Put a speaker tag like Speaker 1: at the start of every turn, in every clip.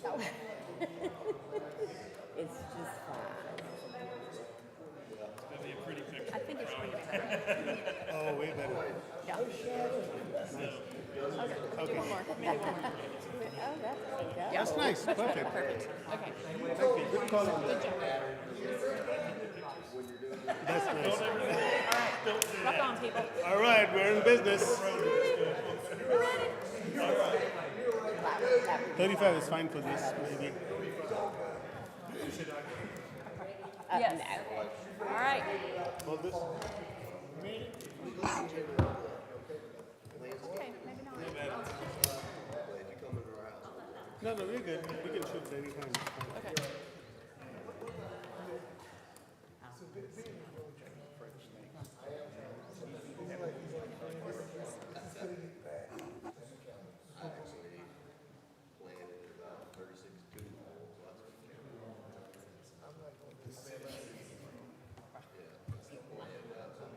Speaker 1: so it's just fun.
Speaker 2: That'd be a pretty picture.
Speaker 1: I think it's pretty good.
Speaker 3: Oh, way better.
Speaker 1: Yeah. Okay, do one more. Maybe one more. Oh, that's, yeah.
Speaker 3: That's nice. Perfect.
Speaker 1: Perfect. Okay.
Speaker 3: Good call. That's nice.
Speaker 1: Rock on, people.
Speaker 3: All right, we're in business.
Speaker 1: Clap, clap.
Speaker 3: 35 is fine for this, maybe.
Speaker 1: Uh, no. All right.
Speaker 3: Hold this.
Speaker 1: Okay, maybe not.
Speaker 3: No, no, we're good. We can shoot anytime.
Speaker 1: Okay.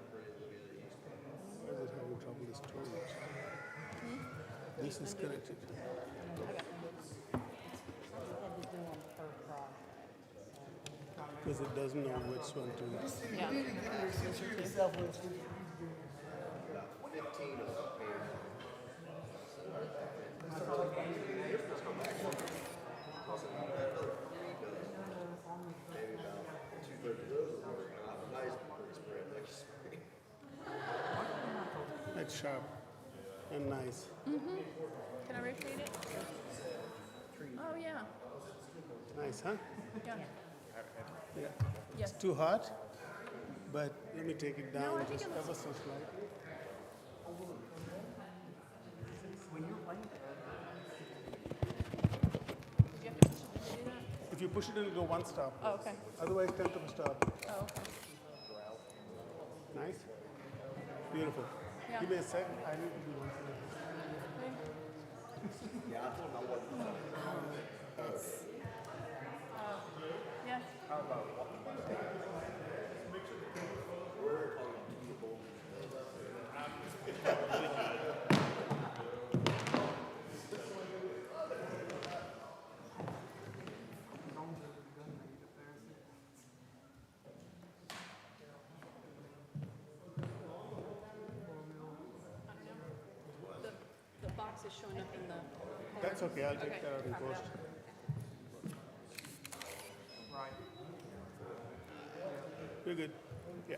Speaker 3: Why is it having trouble with storage? This is connected. Because it doesn't know which one to.
Speaker 1: Yeah.
Speaker 3: That's sharp and nice.
Speaker 1: Mm-hmm. Can I repeat it? Oh, yeah.
Speaker 3: Nice, huh?
Speaker 1: Yeah.
Speaker 3: Yeah.
Speaker 1: Yes.
Speaker 3: Too hot, but let me take it down
Speaker 1: I think
Speaker 3: just
Speaker 1: it looks-
Speaker 3: ever so slightly.
Speaker 1: You have to push it to do that?
Speaker 3: If you push it, it'll go one stop.
Speaker 1: Oh, okay.
Speaker 3: Otherwise, tell to stop.
Speaker 1: Oh, okay.
Speaker 3: Nice. Beautiful.
Speaker 1: Yeah.
Speaker 3: Give me a sec. I need to do one thing.
Speaker 1: Yeah. The, the box is showing up in the.
Speaker 3: That's okay. I'll
Speaker 1: Okay.
Speaker 3: take that out in post. You're good. Yeah.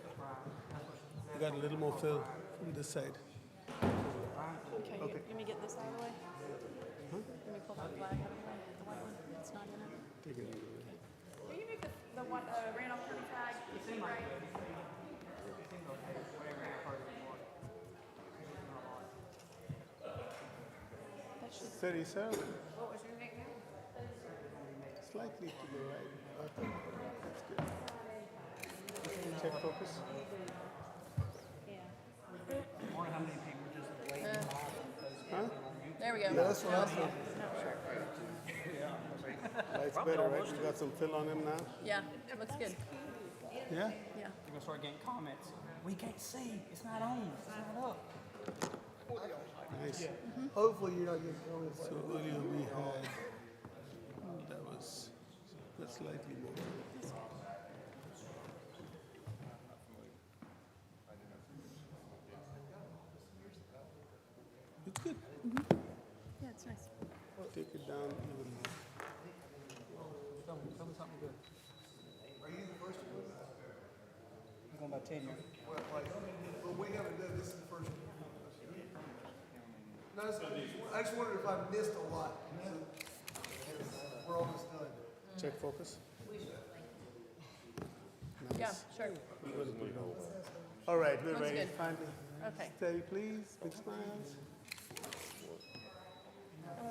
Speaker 3: You got a little more fill from this side.
Speaker 1: Okay, you- let me get this out of the way. Let me pull that flag out of the way, the white one, it's not in it.
Speaker 3: Take it.
Speaker 1: Will you make the, the one, uh, Randolph County flag, right? That should,
Speaker 3: Thirty-seven.
Speaker 1: what was your nickname?
Speaker 3: Slightly to the right. Okay. That's good. Check focus. Huh?
Speaker 1: There we go.
Speaker 3: that's what I said. Lights better, right? You got some fill on him now?
Speaker 1: Yeah, looks good,
Speaker 3: Yeah?
Speaker 1: yeah.
Speaker 4: You're gonna start getting comments. We can't see. It's not on. It's not up.
Speaker 3: Nice. Mm-hmm.
Speaker 5: Hopefully you're not getting thrown with
Speaker 3: So earlier we had, that was, that's slightly more. It's good.
Speaker 1: Yeah, it's nice.
Speaker 3: Take it down even more.
Speaker 4: Tell me, tell me something good. Are you the first one? I'm going by tenure.
Speaker 5: But we haven't done this in the first. No, it's- I just wondered if I missed a lot. We're almost done.
Speaker 3: Check focus.
Speaker 1: Yeah, sure,
Speaker 3: We're gonna put it on. All right, we're
Speaker 1: Looks
Speaker 3: ready.
Speaker 1: good.
Speaker 3: Finally.
Speaker 1: okay.
Speaker 3: Steady, please. Big smiles.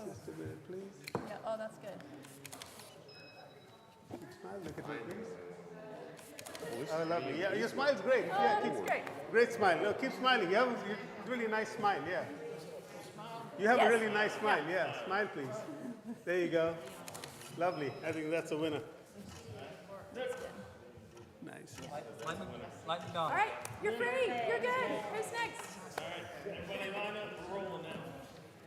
Speaker 3: Just a minute, please.
Speaker 1: Yeah, oh, that's good.
Speaker 3: Big smile. Look at me, please. Oh, lovely. Yeah, your smile's great. yeah,
Speaker 1: Oh, that's
Speaker 3: keep,
Speaker 1: great.
Speaker 3: Great smile. No, keep smiling. You have a you- really nice smile. Yeah. You have
Speaker 1: Yes.
Speaker 3: a really nice smile. Yeah. Smile, please. There you go. Lovely. I think that's a winner.
Speaker 1: That's good.
Speaker 3: Nice.
Speaker 4: Like, the- like the dog.
Speaker 1: All right, you're free, you're good, who's next?
Speaker 2: Everybody line up, we're rolling now.